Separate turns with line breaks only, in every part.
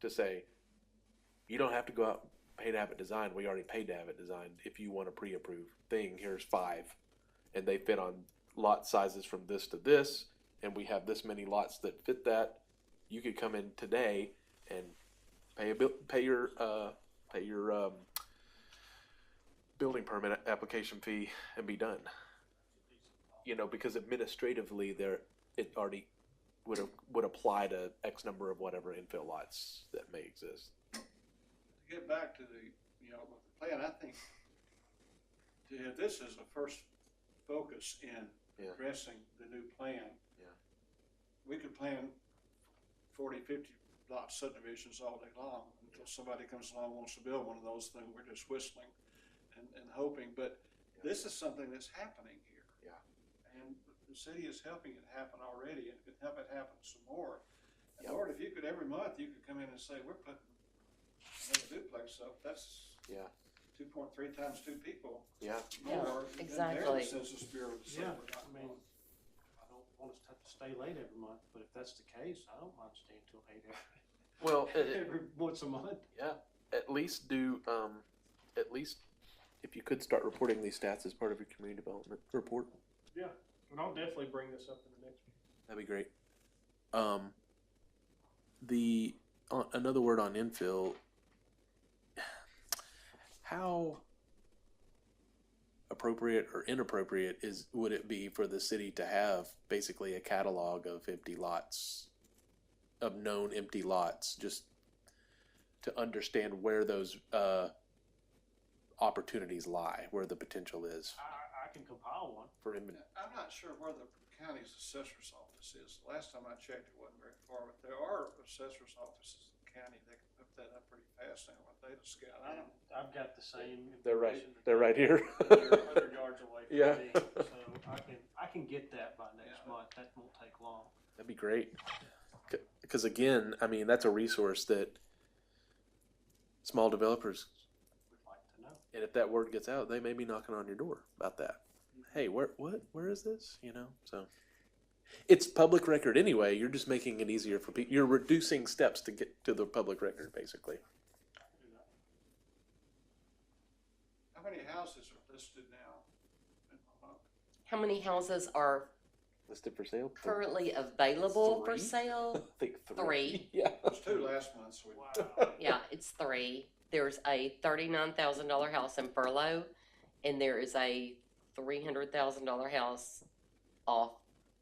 to say, you don't have to go out and pay to have it designed. We already paid to have it designed. If you want a pre-approved thing, here's five, and they fit on lot sizes from this to this, and we have this many lots that fit that. You could come in today and pay a bill, pay your uh, pay your um, building permit a- application fee and be done. You know, because administratively, there it already would would apply to X number of whatever infill lots that may exist.
to get back to the, you know, with the plan, I think to have this as a first focus in
Yeah.
addressing the new plan.
Yeah.
We could plan 40, 50 lot subdivisions all day long until somebody comes along and wants to build one of those things. We're just whistling and, and hoping, but
Yeah.
this is something that's happening here.
Yeah.
And the city is helping it happen already and can help it happen some more. And
Yeah.
Lord, if you could, every month, you could come in and say, we're putting another duplex up, that's
Yeah,
two point three times two people
yeah,
Yeah,
more than their
exactly.
Census Bureau would say
Yeah,
we're not
I mean,
going.
I don't want us to have to stay late every month, but if that's the case, I don't mind staying till eight every,
well, it- it-
every once a month.
yeah. At least do, um, at least if you could start reporting these stats as part of your community development report,
Yeah, and I'll definitely bring this up in the next.
that'd be great. Um, the uh, another word on infill. How appropriate or inappropriate is would it be for the city to have basically a catalog of empty lots, of known empty lots, just to understand where those uh, opportunities lie, where the potential is
I, I can compile one.
for imminent.
I'm not sure where the county's assessor's office is. Last time I checked, it wasn't very far, but there are assessor's offices in the county that can hook that up pretty fast now with data scout. I don't,
I've got the same.
They're right.
information.
They're right here.
They're a hundred yards away from
Yeah.
me, so I can, I can get that by next
Yeah.
month. That won't take long.
That'd be great. Because again, I mean, that's a resource that small developers,
We'd like to know.
and if that word gets out, they may be knocking on your door about that. Hey, where, what, where is this? You know, so it's public record anyway. You're just making it easier for people. You're reducing steps to get to the public record, basically.
I can do that.
how many houses are listed now? in Monmouth?
How many houses are
Listed for sale.
currently available for
Three?
sale?
I think three.
Three.
Yeah.
There was two last month, so we,
Wow.
Yeah, it's three. There's a thirty-nine thousand dollar house in Furlough, and there is a three hundred thousand dollar house off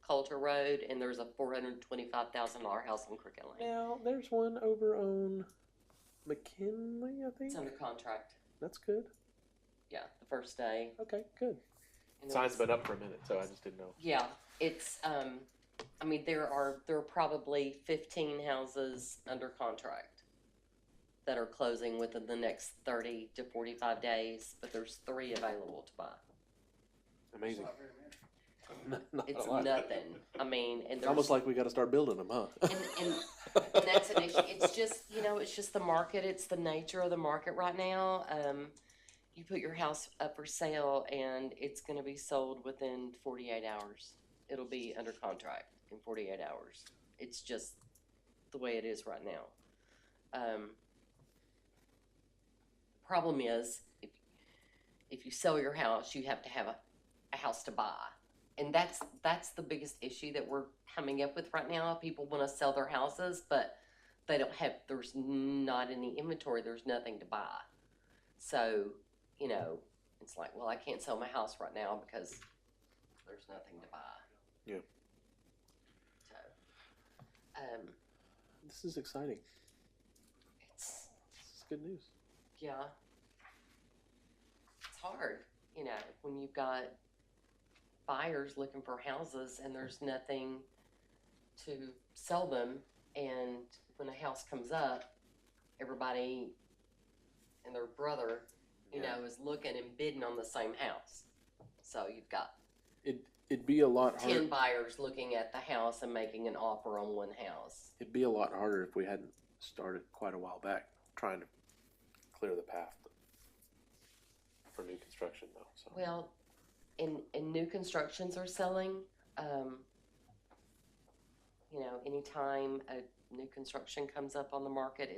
Coulter Road, and there's a four hundred twenty-five thousand dollar house on Cricket Lane.
Now there's one over on McKinley, I think.
It's under contract.
That's good.
Yeah, the first day.
Okay, good.
And
Sign's
there's-
been up for a minute, so I just didn't know.
Yeah, it's. Um, I mean, there are there are probably fifteen houses under contract that are closing within the next thirty to forty-five days, but there's three available to buy.
it's
Amazing.
not very many.
Not
It's
a lot.
nothing. I mean, and
It's
there's,
almost like we got to start building them, huh?
and, and, and that's an issue. It's just you know, it's just the market. It's the nature of the market right now. Um, you put your house up for sale, and it's going to be sold within forty-eight hours. It'll be under contract in forty-eight hours. It's just the way it is right now. Um, problem is, if, if you sell your house, you have to have a, a house to buy. And that's, that's the biggest issue that we're coming up with right now. People want to sell their houses, but they don't have, there's not any inventory, there's nothing to buy. So, you know, it's like, well, I can't sell my house right now because there's nothing to buy.
Yeah.
So, um,
this is exciting.
it's,
This is good news.
yeah, it's hard, you know, when you've got buyers looking for houses and there's nothing to sell them. And when a house comes up, everybody and their brother, you
Yeah.
know, is looking and bidding on the same house. So you've got
It it'd be a lot
10
harder.
buyers looking at the house and making an offer on one house.
It'd be a lot harder if we hadn't started quite a while back trying to clear the path for new construction, though. So
Well, in, in new constructions are selling, um, you know, anytime a new construction comes up on the market,